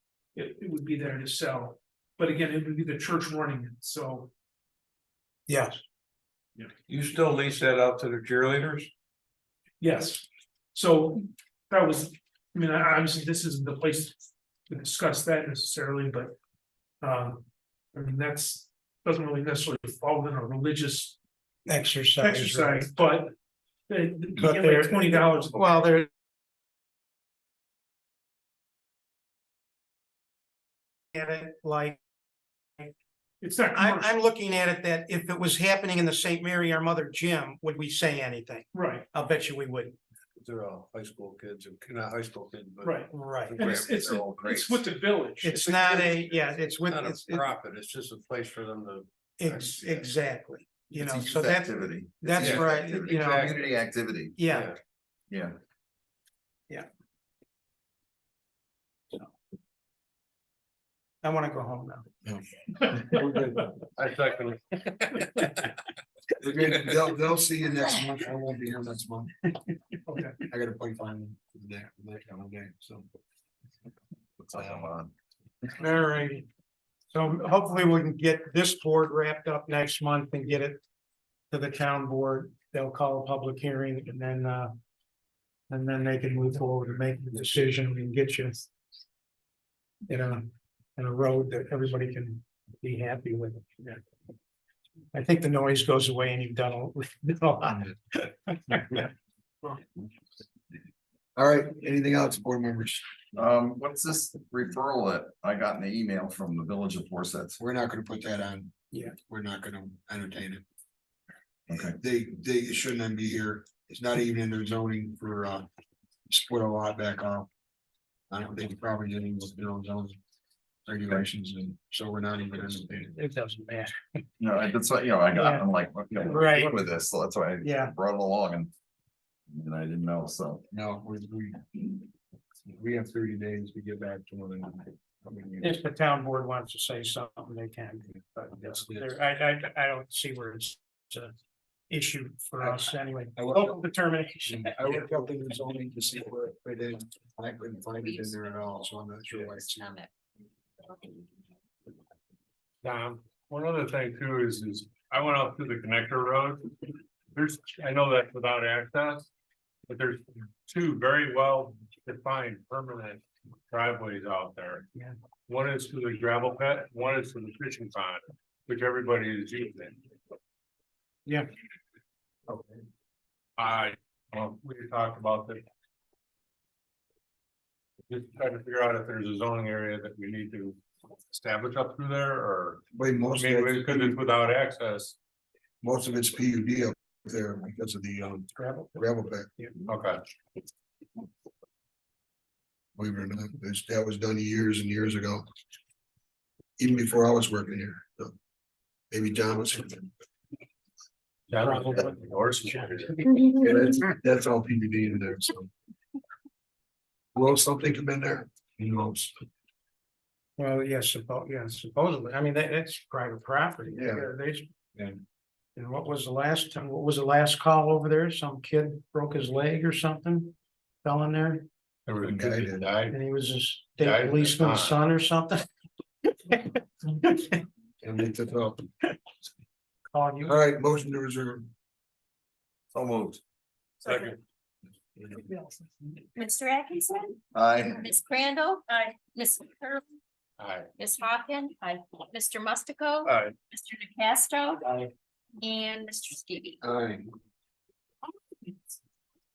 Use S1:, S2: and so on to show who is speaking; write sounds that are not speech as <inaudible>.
S1: It, it would be there to sell, but again, it would be the church running it, so.
S2: Yes.
S1: Yeah.
S2: You still lease that out to the cheerleaders?
S1: Yes, so that was, I mean, I- obviously, this isn't the place to discuss that necessarily, but. Um, I mean, that's, doesn't really necessarily fall in a religious
S2: Exercise.
S1: exercise, but. They, they
S2: But
S1: get
S2: they're-
S1: like twenty dollars,
S2: Well, there. At it like,
S1: it's not.
S3: I'm,
S1: commercial.
S3: I'm looking at it that if it was happening in the Saint Mary Our Mother gym, would we say anything?
S1: Right,
S3: I'll bet you we wouldn't.
S2: They're all high school kids, or not high school kids, but.
S1: right,
S3: Right.
S1: and it's, it's,
S2: They're all
S1: it's
S2: greats.
S1: with the village.
S3: It's not a, yeah, it's with,
S2: Not
S3: it's,
S2: a profit, it's just a place for them to.
S3: it's, exactly, you
S4: It's
S3: know,
S4: a
S3: so
S4: youth
S3: that's,
S4: Activity. It's a
S3: that's
S4: youth
S3: right,
S4: activity.
S3: you know.
S4: Community activity,
S3: yeah.
S4: yeah.
S3: I wanna go home now.
S2: We're good. I second.
S4: We're good. They'll, they'll see you next month. I won't be here next <laughs> month.
S1: Okay.
S4: I gotta play final there, that kind of game, so.
S3: All righty. So hopefully we can get this board wrapped up next month and get it to the town board. They'll call a public hearing and then, uh, and then they can move forward and make the decision and get you in a, in a road that everybody can be happy with. Yeah. I think the noise goes away and you've done a done a <laughs> lot.
S4: All right, anything else, board members?
S5: Um, what's this referral that I got in the email from the village of Forsyth?
S4: We're not gonna put that on.
S3: Yeah.
S4: We're not gonna entertain it.
S5: Okay.
S4: They, they it shouldn't be here. It's not even in their zoning for, uh, split a lot back off. I don't think it probably getting with their own zoning regulations and so we're not even entertaining.
S3: It doesn't matter.
S5: No, I- that's what, you know, I got, I'm like, what- you know, what
S3: Right.
S5: with this, so that's why
S3: Yeah.
S5: I brought it along and. And I didn't know, so.
S4: No, we, we. We have thirty days to get back to one another. I mean, you-
S3: If the town board wants to say something, they can, but
S4: Yes, yes.
S3: there, I, I, I don't see where it's it's an issue for us anyway.
S4: I looked
S3: Local
S4: up-
S3: determination.
S4: I looked up in the zoning to see where it fit in, and I couldn't find it in there at all, so I'm not sure why it's.
S6: Not that.
S7: Um, one other thing too is, is I went out to the connector road. There's, I know that's without access. But there's two very well defined permanent driveways out there.
S3: Yeah.
S7: One is to the gravel pit, one is to the fishing pond, which everybody is using.
S3: Yeah.
S7: I, um, we talked about that. Just trying to figure out if there's a zoning area that we need to establish up through there or.
S4: Way
S7: I
S4: most, of
S7: mean,
S4: it-
S7: because it's without access,
S4: most of it's P U D up there because of the um
S3: Gravel.
S4: gravel pit,
S7: okay,
S4: believe it or not, it's- that was done years and years ago. Even before I was working here, so. Maybe John was.
S7: that was what the horse is here.
S4: Yeah, that's, that's all PBD in there, so. Will something come in there? Who knows?
S3: Well, yes, suppo- yeah, supposedly, I mean, that, that's private property.
S4: Yeah.
S3: They.
S4: Yeah.
S3: And what was the last time, what was the last call over there? Some kid broke his leg or something? Fell in there
S7: There was a kid that died.
S3: and he was his
S7: Died in
S3: state
S7: the
S3: policeman's
S7: pond.
S3: son or something? <laughs>
S4: And they took off.
S3: Calling you.
S4: All right, motion to reserve.
S5: So moved.
S7: Second.
S6: Mr. Atkinson,
S5: I,
S6: Ms. Crandall. Hi. Ms. Curley,
S7: Aye.
S6: Ms. Hawken. Hi. Mr. Mustico.
S7: Aye.
S6: Mr. DeCastro.
S3: Aye.
S6: And Mr. Skibby.
S4: Aye.